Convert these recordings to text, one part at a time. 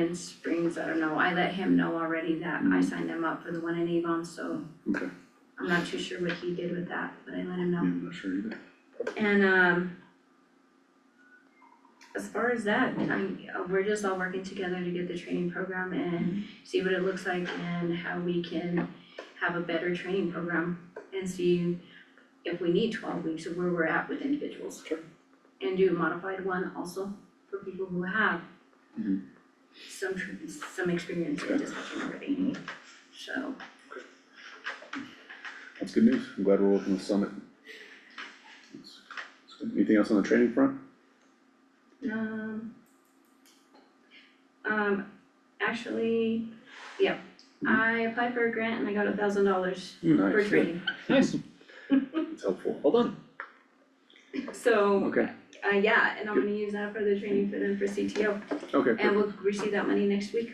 in Springs, I don't know, I let him know already that I signed them up for the one in Avon, so Okay, I'm not too sure what he did with that, but I let him yeah, know. I'm not sure either. And um as far as that, I'm, uh, we're just all working together to get the training program and see what it looks like and how we can have a better training program and see if we need twelve weeks of where we're at with individuals. Sure. And do a modified one also for people who have Mhm. some tr- some experience in dispatching already, E. so. That's good news. I'm glad we're open with Summit. That's- that's good. Anything else on the training front? Um. Um, actually, yeah, I applied for a grant and I got a thousand dollars for Nice, training, Nice, it's helpful. well done. so, Okay, uh, yeah, and I'm gonna use that for the training for them for CTO. okay, And perfect. we'll receive that money next week,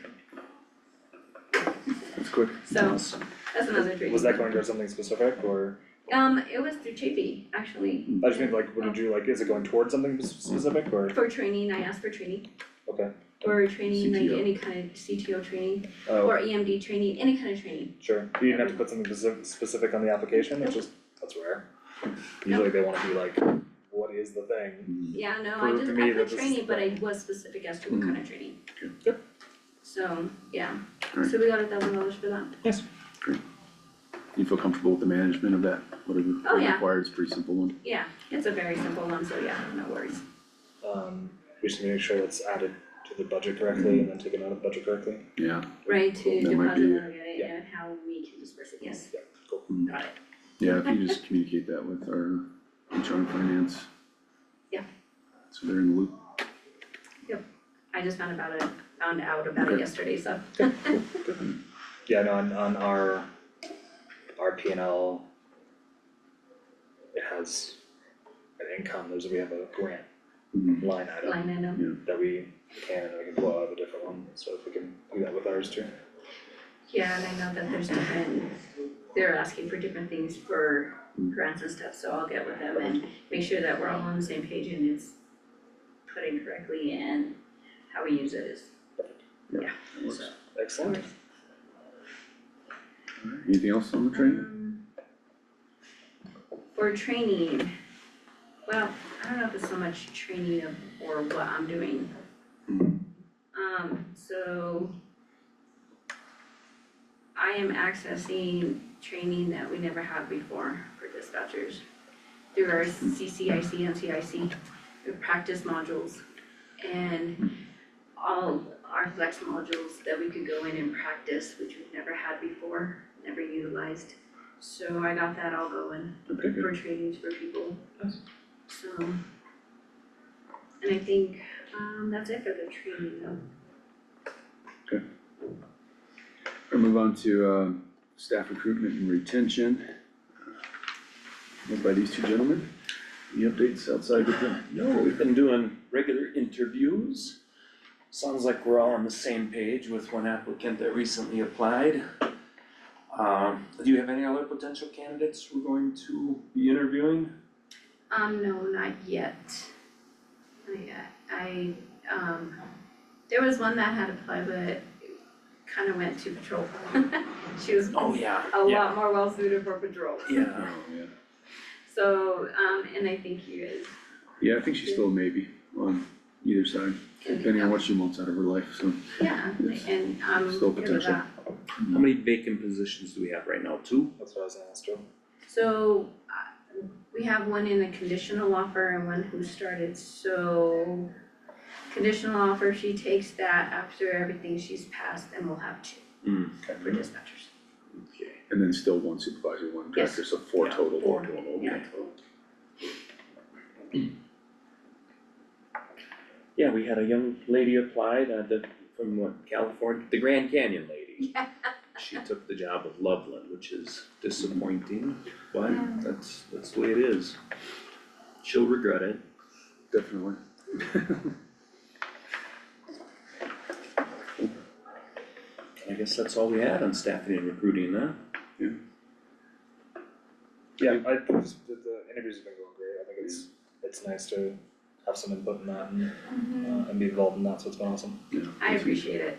That's quick. so Nice. that's another training. Was that going towards something specific or, Um, it was through Chafee, actually. I just mean like, what did you like, is it going towards something s- specific or, For training, I asked for training. Okay. Or training, like CTO. any kind of CTO training, oh, or EMD training, any kind of training, sure, you didn't have to put something specific, specific on the application, it's just, that's rare. Usually they wanna be like, what is the thing? yeah, no, For- I for just, me, I that put was- training, but I was specific as to what Mhm. kind of training. Yep. So, yeah, Alright. so we got a thousand dollars for that. You feel comfortable with the management of that, whatever Oh, yeah. required, it's a pretty simple one. Yeah, it's a very simple one, so yeah, no worries. Um, we just need to make sure it's added to the budget correctly and then taken out of the budget correctly. Yeah, Right, to That might deposit be- it yeah. and how we can disperse it, yes. Yeah, cool. Got it. yeah, if you just communicate that with our HR and finance. Yeah. So they're in the loop. I just found about it, found out about it Okay. yesterday, so, Yeah, no, on on our, our P and L. It has an income, there's, we have a grant Mhm. line item. line item. that we can and we can pull out of a different one, so if we can do that with ours too. Yeah, and I know that there's different, they're asking for different things for grants and stuff, so I'll get with them and make sure that we're all on the same page and it's put in correctly and how we use it is, That works. so. Excellent. Alright, Anything else on the training? Um, For training, well, I don't know if it's so much training of, or what I'm doing. Mhm. Um, so I am accessing training that we never had before for dispatchers through our CCIC and CIC, the practice modules. And all our flex modules that we could go in and practice, which we've never had before, never utilized. So I got that all going Okay, good. for trainings for people. Nice. So. And I think, um, that's it for the training though. We'll move on to uh, staff recruitment and retention. Led by these two gentlemen. Any updates outside of them? No, we've been doing regular interviews. Sounds like we're all on the same page with one applicant that recently applied. Um, do you have any other potential candidates we're going to be interviewing? Um, no, not yet. Not yet. I, um, there was one that had applied, but kind of went to patrol. She was Oh, yeah, a yeah, lot more well suited for patrol. yeah. Oh, yeah. So, um, and I think you guys Yeah, I think she's still a maybe on either side, can depending on what she wants out of her life, so. Yeah, Yes. and um, Still give it potential. that. How many vacant positions do we have right now? Two? That's what I was gonna ask too. So uh, we have one in a conditional offer and one who started, so conditional offer, she takes that after everything she's passed and we'll have two Hmm, for dispatchers. okay. And then still one supervisor, one Yes. director, so four Yeah, total. four, okay. Yeah, cool. Yeah, we had a young lady apply that, that, from what, California, the Grand Canyon lady. Yeah. She took the job of Loveland, which is disappointing, but that's, that's the way it is. She'll regret it. Definitely. I guess that's all we had on staffing and recruiting, huh? Yeah, I think this- the the interviews have been going great, I think it's, it's nice to have some input in that and uh and be involved in that, so it's been awesome. Yeah, I that's- appreciate it.